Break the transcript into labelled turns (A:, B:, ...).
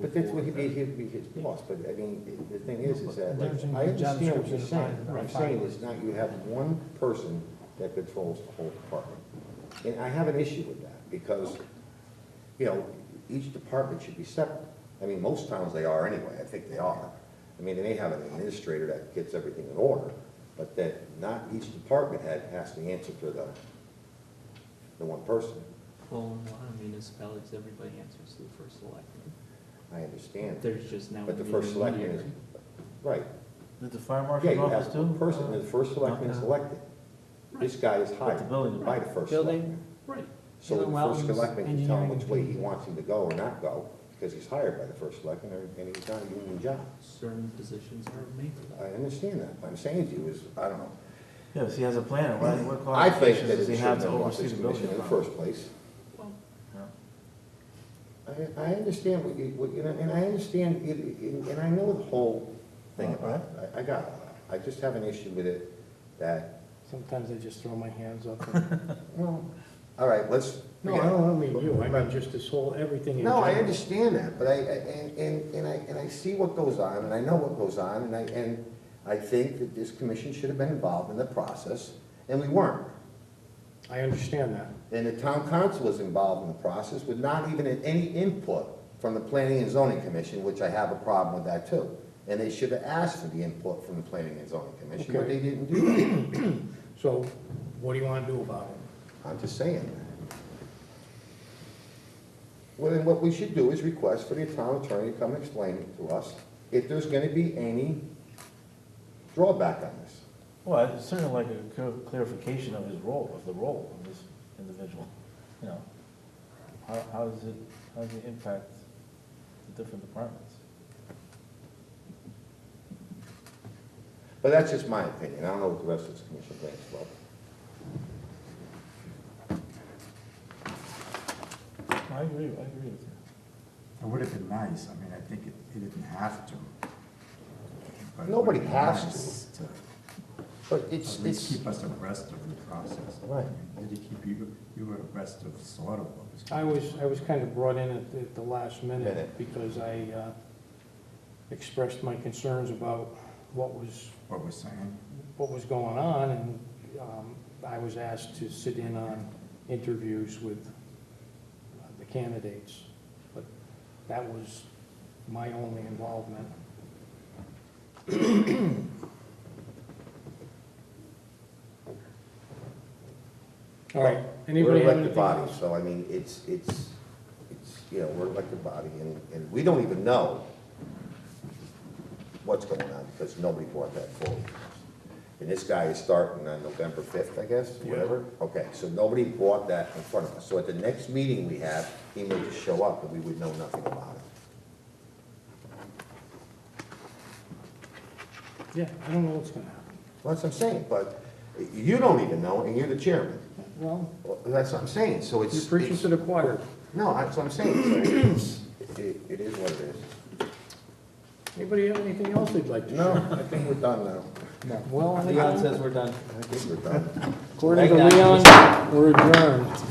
A: But that's what he'd be, he'd be his boss, but I mean, the thing is, is that, like, I understand what you're saying. What I'm saying is not, you have one person that controls the whole department. And I have an issue with that, because, you know, each department should be separate. I mean, most towns they are anyway, I think they are. I mean, they may have an administrator that gets everything in order, but that not each department head has to answer to the, the one person.
B: Well, in a lot of municipalities, everybody answers to the first selectman.
A: I understand.
B: There's just now.
A: But the first
B: meeting
A: selectman is,
B: here.
A: right,
C: Did the fire
A: Yeah,
C: marshal's
A: you
C: office
A: have
C: do?
A: one person, the first selectman is
C: Okay.
A: elected. This guy is
C: But the
A: hired
C: building,
A: by the first
D: Building.
A: selectman.
B: Right.
A: So the
D: Dylan
A: first
D: Wellens,
A: selectman can tell him
D: engineering.
A: which way he wants him to go or not go, because he's hired by the first selectman, and- and he's not a union job.
B: Certain positions are made for
A: I
B: that.
A: understand that, what I'm saying to you is, I don't know.
C: yeah, if he has a planner, what, what
A: I think
C: qualifications
A: that it
C: does he
A: should
C: have
A: have
C: to
A: gone
C: oversee
A: to
C: the
A: the
C: building?
A: commission in the first place.
B: Well,
C: Yeah.
A: I, I understand what you, what, you- and I understand, it- it- and I know the whole thing about it, I, I got it. I just have an issue with it, that,
D: Sometimes I just throw my hands up. and-
A: well, all right, let's.
D: No, I don't mean you, I mean just this whole, everything in
A: No, I
D: general.
A: understand that, but I, I- and, and, and I, and I see what goes on, and I know what goes on, and I, and I think that this commission should have been involved in the process, and we weren't.
D: I understand that.
A: And the town council was involved in the process with not even any input from the planning and zoning commission, which I have a problem with that too. And they should have asked for the input from the planning and zoning commission, but they didn't do that.
D: So what do you want to do about it?
A: I'm just saying. Well, then what we should do is request for the town attorney to come explain it to us, if there's gonna be any drawback on this.
C: Well, it's certainly like a clar- clarification of his role, of the role of this individual, you know. How, how does it, how does it impact the different departments?
A: But that's just my opinion, I don't know what the rest of this commission thinks, but.
C: I agree, I agree with you.
E: It would have been nice, I mean, I think it, he didn't have to. but it
A: Nobody
E: would have
A: has
E: been nice
A: But
E: To at least keep us abreast of the process.
A: Right.
E: Did he keep you, you were abreast of sort of what was.
D: I was, I was kind of brought in at, at the last minute
A: Minute.
D: because I uh, expressed my concerns about what was,
E: What was saying,
D: what was going on and um, I was asked to sit in on interviews with uh, the candidates. But that was my only involvement. All right, anybody
A: We're
D: have
A: elected
D: anything?
A: body, so I mean, it's, it's, it's, you know, we're elected body, and, and we don't even know what's going on, because nobody brought that forward. And this guy is starting on November fifth, I guess, whatever, okay, so nobody brought that in front of us, so at the next meeting we have, he may just show up, and we would know nothing about it.
D: Yeah, I don't know what's gonna happen.
A: Well, That's what I'm saying, but you don't even know, and you're the chairman,
D: Well,
A: Well, that's what I'm saying, so it's.
D: you're preaching
A: it's-
D: to the choir.
A: No, that's what I'm saying, so it's, it, it is what it is.
D: Anybody have anything else they'd like to
A: No,
D: share?
A: I think we're done now.
D: No. Well,
B: Leon
D: I-
B: says we're done.
A: I think we're done.
D: according to
B: Thank you.
D: Leon, we're adjourned.